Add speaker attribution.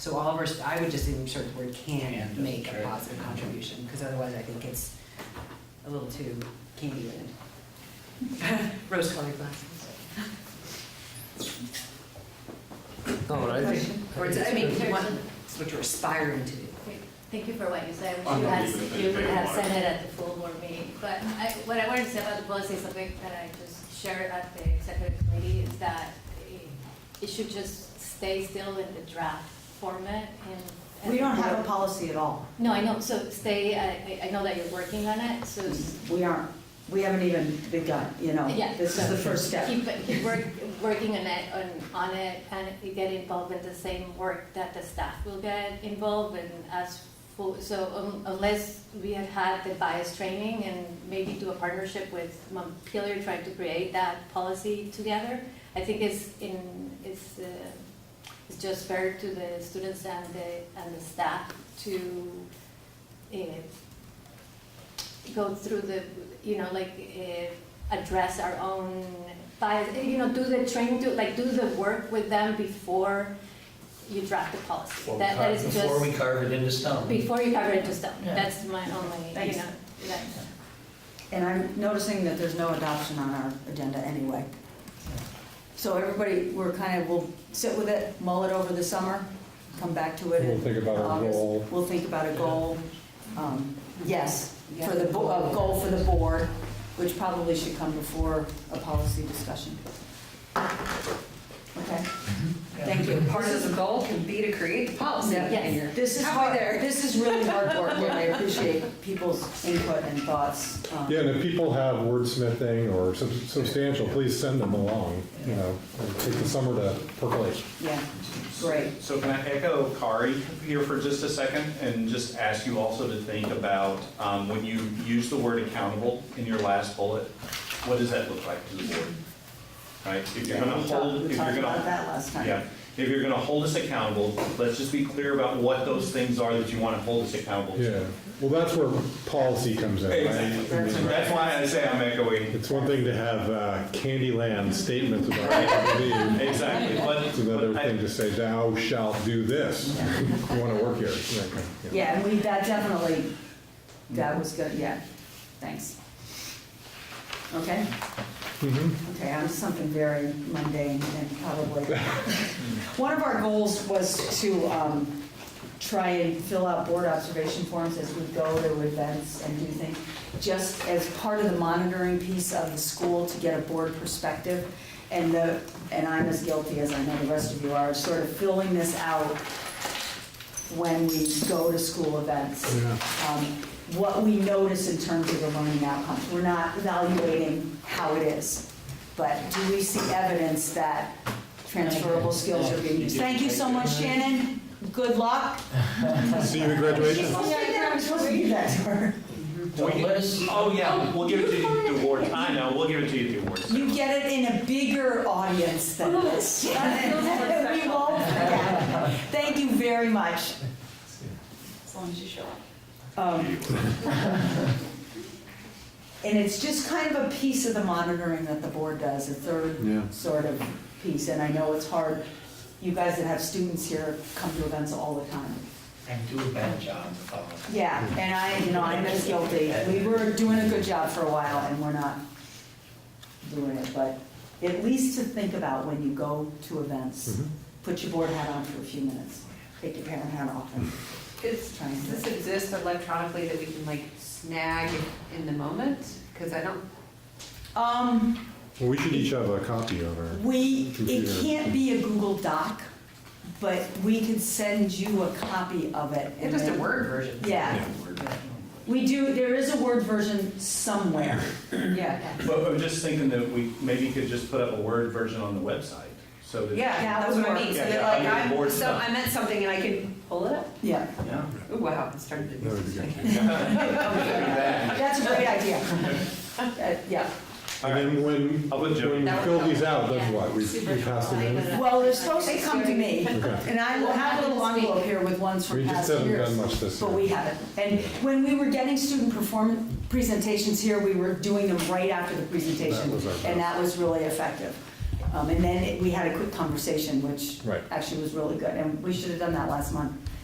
Speaker 1: So all of our, st- I would just insert the word
Speaker 2: Can,
Speaker 1: can
Speaker 2: just
Speaker 1: make a
Speaker 2: sure.
Speaker 1: positive contribution, because otherwise I think it's a little too candyland. Rose colored glasses.
Speaker 3: No, but I think.
Speaker 1: Or it's, I mean, if you want,
Speaker 3: Well,
Speaker 1: it's what you're aspiring to do.
Speaker 4: Thank you for what you said,
Speaker 5: I'm
Speaker 4: you
Speaker 5: not
Speaker 4: had,
Speaker 5: even gonna
Speaker 4: you
Speaker 5: take a
Speaker 4: have
Speaker 5: lot.
Speaker 4: said it at the full board meeting. But I, what I wanted to say about the policy, is something that I just shared at the executive committee, is that it- it should just stay still in the draft format and.
Speaker 6: We don't have a policy at all.
Speaker 4: No, I know, so stay, I, I- I know that you're working on it, so.
Speaker 5: Mm-hmm.
Speaker 4: s-
Speaker 6: We aren't, we haven't even begun, you know?
Speaker 4: Yeah.
Speaker 6: This is the
Speaker 4: so
Speaker 6: first step.
Speaker 4: Keep, keep work, working on it, on, on it, and you get involved in the same work that the staff will get involved in as full, so um, unless we had had the bias training and maybe do a partnership with Montpelier, trying to create that policy together, I think it's in, it's, uh, it's just fair to the students and the, and the staff to, uh, go through the, you know, like, uh, address our own bias, eh, you know, do the training, do, like, do the work with them before you draft the policy.
Speaker 2: Before we
Speaker 4: That, that
Speaker 2: carve-
Speaker 4: is
Speaker 2: Before we
Speaker 4: just,
Speaker 2: carve it into stone.
Speaker 4: before you cover it to stone,
Speaker 2: Yeah.
Speaker 4: that's my only, you
Speaker 6: Thanks.
Speaker 4: know, that,
Speaker 6: And I'm noticing that there's no adoption on our agenda anyway. So everybody, we're kind of, we'll sit with it, mull it over the summer, come back to it
Speaker 3: We'll
Speaker 6: in
Speaker 3: think about our
Speaker 6: August.
Speaker 3: goal.
Speaker 6: We'll think about a goal. Um, Yes, for the, bo- a goal for the board, which probably should come before a policy discussion. Okay? Thank you.
Speaker 1: Part of the goal can be to create the policy.
Speaker 6: Yeah.
Speaker 1: and you're
Speaker 6: This is
Speaker 1: halfway
Speaker 6: hard,
Speaker 1: there.
Speaker 6: this is really hard work, and I appreciate people's input and thoughts. um,
Speaker 3: Yeah, and if people have wordsmithing or sub- substantial, please send them along, you know, and take the summer to percolate.
Speaker 6: Yeah, great.
Speaker 5: So can I echo Kari here for just a second and just ask you also to think about um, when you use the word accountable in your last bullet, what does that look like to the board? Right? If you're gonna
Speaker 6: We talked-
Speaker 5: hold, if
Speaker 6: We
Speaker 5: you're
Speaker 6: talked
Speaker 5: gonna.
Speaker 6: about that last time.
Speaker 5: Yeah, if you're gonna hold us accountable, let's just be clear about what those things are that you wanna hold us accountable to.
Speaker 3: Yeah, well, that's where policy comes in,
Speaker 5: Exactly.
Speaker 3: right?
Speaker 5: That's why I say I'm echoing.
Speaker 3: It's one thing to have uh, Candyland statements about Airbnb.
Speaker 5: Exactly, but.
Speaker 3: It's another
Speaker 5: but I-
Speaker 3: thing to say, thou shalt do this. You want to work here. that kind of-
Speaker 6: Yeah, and we, that definitely, that was good, yeah, thanks. Okay,
Speaker 3: Mhm.
Speaker 5: Mm-hmm.
Speaker 6: okay, I'm something very mundane and probably. One of our goals was to um, try and fill out board observation forms as we go to events and do things, just as part of the monitoring piece of the school to get a board perspective. And the, and I'm as guilty as I know the rest of you are, sort of filling this out when we go to school events. um, What we notice in terms of the learning outcomes. We're not evaluating how it is, but do we see evidence that transferable skills are being used? Thank you so much, Shannon. Good luck.
Speaker 3: See you at graduation.
Speaker 6: Supposed to be there. I'm supposed to be there.
Speaker 2: Don't let us,
Speaker 5: Oh, yeah, we'll give it to you at the awards. I know, we'll give it to you at the awards.
Speaker 6: You get it in a bigger audience than this. We won't forget. Thank you very much. As long as you show up. Um, And it's just kind of a piece of the monitoring that the board does, a
Speaker 3: Yeah.
Speaker 6: third sort of piece. And I know it's hard, you guys that have students here come to events all the time.
Speaker 2: and do a bad job of following.
Speaker 6: Yeah, and I, you know, I'm as guilty. We were doing a good job for a while and we're not doing it, but at least to think about when you go to events,
Speaker 3: Mhm.
Speaker 6: put your board hat on for a few minutes, take your parent hat off and
Speaker 1: Is-
Speaker 6: try and
Speaker 1: Does
Speaker 6: do it.
Speaker 1: this exist electronically that we can like snag in the moment? Because I don't,
Speaker 6: Um,
Speaker 3: Well, We should each have a copy of our.
Speaker 6: we, it can't be a Google Doc, but we can send you a copy of it.
Speaker 1: it's
Speaker 6: and
Speaker 1: just a
Speaker 6: then-
Speaker 1: word version.
Speaker 6: Yeah, we do, there is a Word version somewhere, yeah.
Speaker 5: But I'm just thinking that we maybe could just put up a Word version on the website, so that.
Speaker 1: Yeah,
Speaker 6: That
Speaker 1: that's
Speaker 6: would
Speaker 1: what I
Speaker 6: work.
Speaker 1: mean. So
Speaker 5: Yeah,
Speaker 1: that
Speaker 5: yeah,
Speaker 1: like
Speaker 5: under the
Speaker 1: I'm,
Speaker 5: board
Speaker 1: so
Speaker 5: stuff.
Speaker 1: I meant something and I can pull it up.
Speaker 6: Yeah,
Speaker 5: Yeah.
Speaker 1: Ooh, wow, I started to
Speaker 3: That
Speaker 1: do
Speaker 3: would be
Speaker 1: something.
Speaker 3: good.
Speaker 6: that's a great idea. Uh, Yeah.
Speaker 3: And then when,
Speaker 5: I'll put Joe.
Speaker 3: when we fill these out, then what? We we pass them in?
Speaker 6: Well, they're supposed to come to me,
Speaker 3: Okay.
Speaker 6: and I will have a little envelope here with ones
Speaker 3: We
Speaker 6: from
Speaker 3: just
Speaker 6: past
Speaker 3: haven't done
Speaker 6: years.
Speaker 3: much this
Speaker 6: But
Speaker 3: year.
Speaker 6: we haven't. And when we were getting student performance presentations here, we were doing them right after the presentation.
Speaker 3: That was our
Speaker 6: And that was really effective. Um, And then it- we had a quick conversation, which
Speaker 3: Right.
Speaker 6: actually was really good, and we should have done that last month.